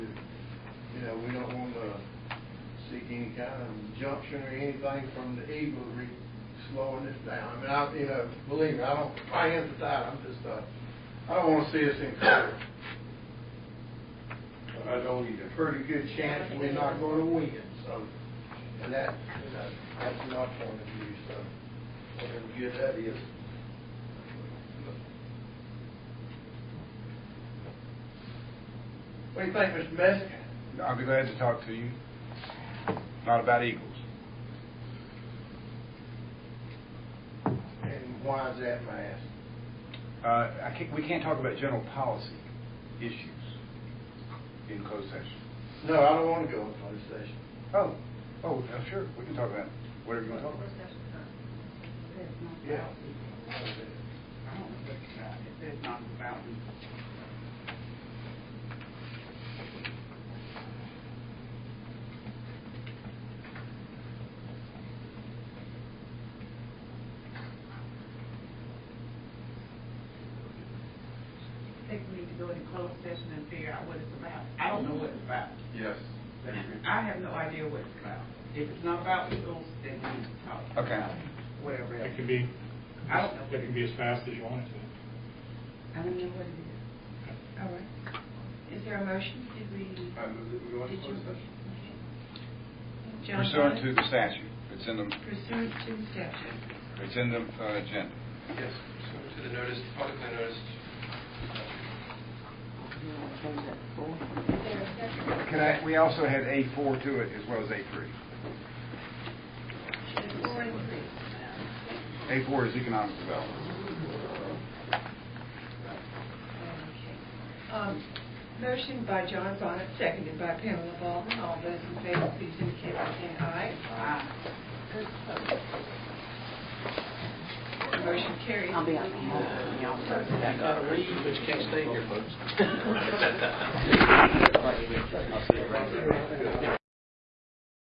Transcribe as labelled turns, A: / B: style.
A: any kind of injunction or anything from the Eagle re, slowing this down. I mean, I, you know, believe me, I don't, I am to that, I'm just, uh, I don't wanna see us in court. But I know you a pretty good chance we're not gonna win, so, and that, you know, that's my point of view, so, whatever good that is. What do you think, Mr. Messick?
B: I'll be glad to talk to you. Not about Eagles.
A: And why is that, may I ask?
B: Uh, I can't, we can't talk about general policy issues in closed session.
A: No, I don't wanna go in closed session.
B: Oh, oh, yeah, sure, we can talk about whatever you want to talk about.
A: Yeah.
B: I don't think it's about it. It's not about me.
C: I think we need to go into closed session and figure out what it's about. I don't know what it's about.
A: Yes.
C: I have no idea what it's about. If it's not about schools, then we need to talk.
B: Okay.
C: about Whatever else.
D: It can be,
C: I don't know.
D: it can be as fast as you want it to.
C: I don't know what it is. All right.
E: Is there a motion? Did we? did you- Okay. John
B: Pursuant to
E: Bonnet?
B: the statute, it's in the,
E: Pursuant to the statute.
B: it's in the uh, agenda.
F: Yes, pursuant to the notice, publicly noticed.
B: Can I, we also had A four to it as well as A three.
E: Four and three.
B: A four is economic development.
E: Okay. Um, Motion by John Bonnet, seconded by Pamela Baldwin. All those in favor, please indicate by saying aye.
C: Uh,
E: Motion carries.
C: I'll be out. Y'all first.
F: Gotta leave, but you can't stay here, folks.